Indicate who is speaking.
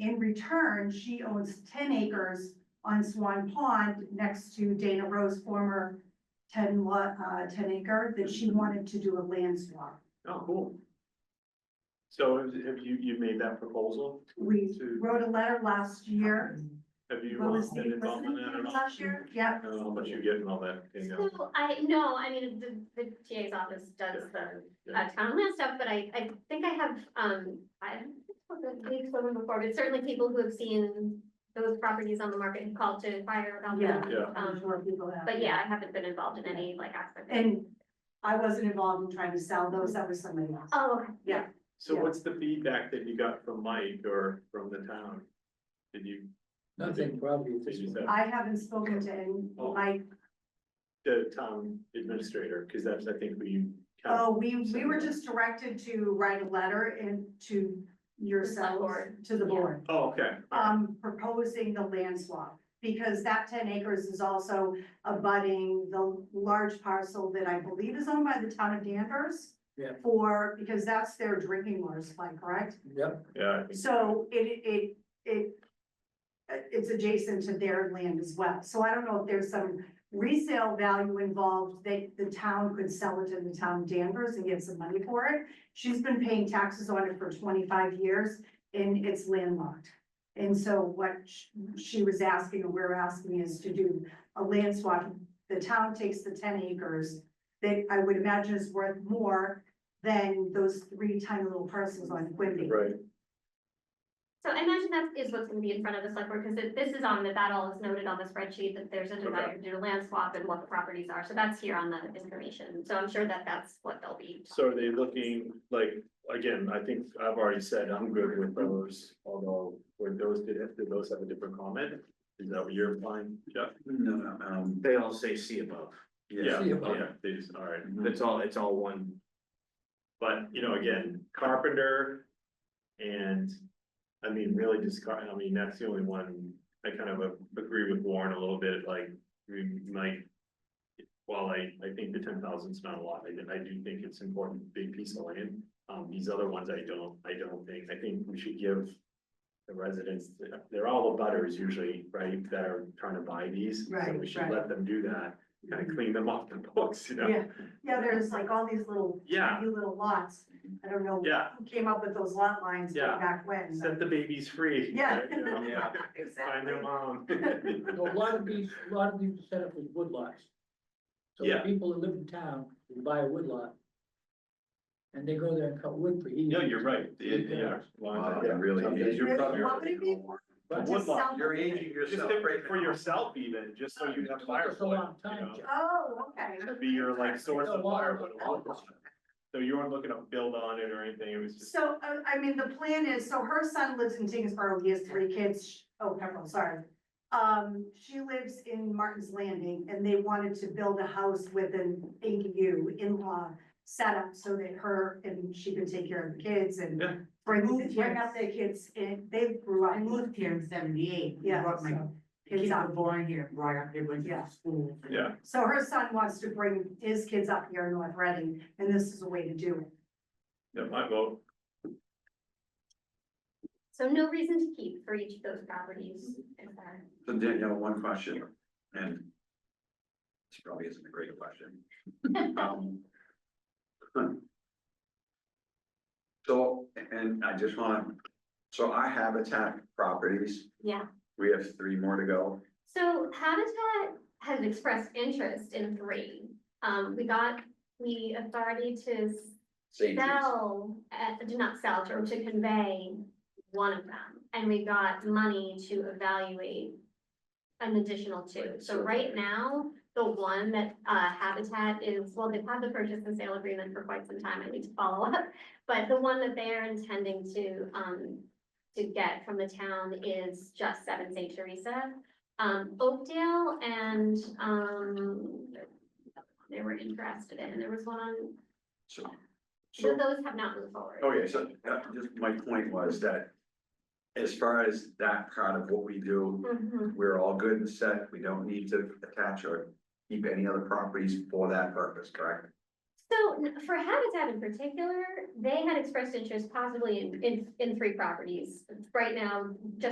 Speaker 1: In return, she owns ten acres on Swan Pond next to Dana Rose former ten lot, uh, ten acre that she wanted to do a land swap.
Speaker 2: Oh, cool. So have have you, you made that proposal?
Speaker 1: We
Speaker 2: To-
Speaker 1: wrote a letter last year.
Speaker 2: Have you
Speaker 1: Will the
Speaker 2: uh,
Speaker 1: state
Speaker 2: been involved in
Speaker 1: listen
Speaker 2: that
Speaker 1: to
Speaker 2: at
Speaker 1: us
Speaker 2: all?
Speaker 1: last year? Yeah.
Speaker 2: I don't know, but you get all that, you know,
Speaker 3: So I, no, I mean, the, the TA's office does the
Speaker 2: Yeah.
Speaker 3: uh, town land stuff, but I, I think I have, um, I don't think we've spoken before, but certainly people who have seen those properties on the market and called to inquire about them. Um,
Speaker 2: Yeah.
Speaker 1: I'm sure people have.
Speaker 3: But yeah, I haven't been involved in any like aspect. of it.
Speaker 1: And I wasn't involved in trying to sell those, that was somebody else.
Speaker 3: Oh, okay.
Speaker 1: Yeah.
Speaker 2: so
Speaker 1: yeah.
Speaker 2: what's the feedback that you got from Mike or from the town? Did you,
Speaker 4: Nothing probably at
Speaker 2: did
Speaker 4: this
Speaker 2: you
Speaker 4: point.
Speaker 2: say,
Speaker 1: I haven't spoken to any,
Speaker 2: Oh,
Speaker 1: like,
Speaker 2: the town administrator, because that's, I think, we.
Speaker 1: oh, we, we were just directed to write a letter and to yourselves,
Speaker 3: board.
Speaker 1: to the
Speaker 3: Yeah.
Speaker 1: board.
Speaker 2: Oh, okay,
Speaker 1: um, proposing the land swap. Because that ten acres is also abutting the large parcel that I believe is owned by the town of Danvers.
Speaker 4: Yeah.
Speaker 1: For, because that's their drinking water supply, correct?
Speaker 4: Yep,
Speaker 2: yeah. I think-
Speaker 1: So it, it, it, uh, it's adjacent to their land as well. So I don't know if there's some resale value involved that the town could sell it to the town of Danvers and get some money for it. She's been paying taxes on it for twenty-five years and it's landlocked. And so what sh- she was asking, or we're asking is to do a land swap. The town takes the ten acres that I would imagine is worth more than those three tiny little parcels on Quimby.
Speaker 2: Right,
Speaker 3: So I imagine that is what's gonna be in front of the select board, because this is on the, that all is noted on the spreadsheet, that there's a desire to do a land swap and what the properties are, so that's here on the information. So I'm sure that that's what they'll be.
Speaker 2: so are they looking, like, again, I think I've already said I'm good with those, although, were those, did, did those have a different comment? Is that what you're implying, Jeff?
Speaker 5: No, no, um, they all say see above.
Speaker 2: Yeah,
Speaker 4: See about it.
Speaker 2: yeah, they just, all right.
Speaker 5: That's all, it's all one.
Speaker 2: But, you know, again, carpenter and, I mean, really just, car- I mean, that's the only one, I kind of a- agree with Warren a little bit, like, we might. While I, I think the ten thousand's not a lot, I, I do think it's important, big piece of land, um, these other ones I don't, I don't think, I think we should give. The residents, they're all the butters usually, right, that are trying to buy these, so we
Speaker 1: Right,
Speaker 2: should
Speaker 1: right. Mm-hmm.
Speaker 2: let them do that, kind of clean them off the books, you know?
Speaker 1: Yeah, yeah, there's like all these little,
Speaker 2: Yeah,
Speaker 1: tiny little lots. I don't know
Speaker 2: yeah.
Speaker 1: who came up with those lot lines way
Speaker 2: Yeah.
Speaker 1: back when. but-
Speaker 2: Set the babies free.
Speaker 1: Yeah.
Speaker 2: You know,
Speaker 5: Yeah.
Speaker 2: Find
Speaker 1: Exactly.
Speaker 2: their mom.
Speaker 4: a lot of these, a lot of these are set up as woodlots. So the
Speaker 2: Yeah.
Speaker 4: people that live in town, can buy a woodlot. And they go there and cut wood for easements.
Speaker 2: No, you're right.
Speaker 4: It- yeah.
Speaker 5: Wow, that really is.
Speaker 2: You're
Speaker 1: Really,
Speaker 2: probably right.
Speaker 1: what would it be?
Speaker 4: But
Speaker 1: To
Speaker 2: woodlot,
Speaker 1: sell
Speaker 5: You're
Speaker 1: them?
Speaker 5: aging
Speaker 2: Just
Speaker 5: yourself
Speaker 2: different
Speaker 5: right
Speaker 2: for
Speaker 5: now.
Speaker 2: yourself even, just so you have
Speaker 4: Took us a
Speaker 2: firewood,
Speaker 4: long
Speaker 2: you
Speaker 4: time,
Speaker 2: know,
Speaker 4: Jeff.
Speaker 1: Oh, okay.
Speaker 2: be your like source
Speaker 4: Took
Speaker 2: of
Speaker 4: a while.
Speaker 2: firewood. So you weren't looking to build on it or anything, it was just,
Speaker 1: So, uh, I mean, the plan is, so her son lives in Tingsboro, he has three kids, Sh- oh, Pepperell, sorry. Um, she lives in Martin's Landing, and they wanted to build a house with an ADU in-law setup so that her and she can take care of the kids and
Speaker 2: Yeah.
Speaker 1: bring, bring up their kids, and they grew up.
Speaker 6: I moved here in seventy-eight.
Speaker 1: Yeah,
Speaker 6: Brought my
Speaker 1: so
Speaker 6: kids
Speaker 1: kids
Speaker 6: were
Speaker 1: up.
Speaker 6: born here, brought up, they went
Speaker 1: Yeah.
Speaker 6: to
Speaker 4: Mm.
Speaker 6: school.
Speaker 2: yeah,
Speaker 1: So her son wants to bring his kids up here in North Reading, and this is a way to do it.
Speaker 2: yeah, my vote.
Speaker 3: So no reason to keep for each of those properties. is there?
Speaker 5: So Danielle, one question, and this probably isn't a great question. Um, So, and I just want, so our habitat properties,
Speaker 3: Yeah,
Speaker 5: we have three more to go.
Speaker 3: so Habitat has expressed interest in three. Um, we got the authority to
Speaker 5: St. Jude's.
Speaker 3: sell, uh, to not sell, or to convey one of them. And we got money to evaluate an additional two.
Speaker 5: Right,
Speaker 3: So
Speaker 5: so-
Speaker 3: right now, the one that, uh, Habitat is, well, they've had the purchase and sale agreement for quite some time. I need to follow up. But the one that they are intending to, um, to get from the town is just Seven St. Teresa. Um, Oakdale and, um, they were interested in, there was one on,
Speaker 5: So,
Speaker 3: so
Speaker 5: so,
Speaker 3: those have not moved forward.
Speaker 5: okay, so uh, just my point was that as far as that part of what we do,
Speaker 3: Mhm.
Speaker 5: we're all good and set, we don't need to attach or keep any other properties for that purpose, correct?
Speaker 3: So n- for Habitat in particular, they had expressed interest possibly in, in, in three properties. Right now, just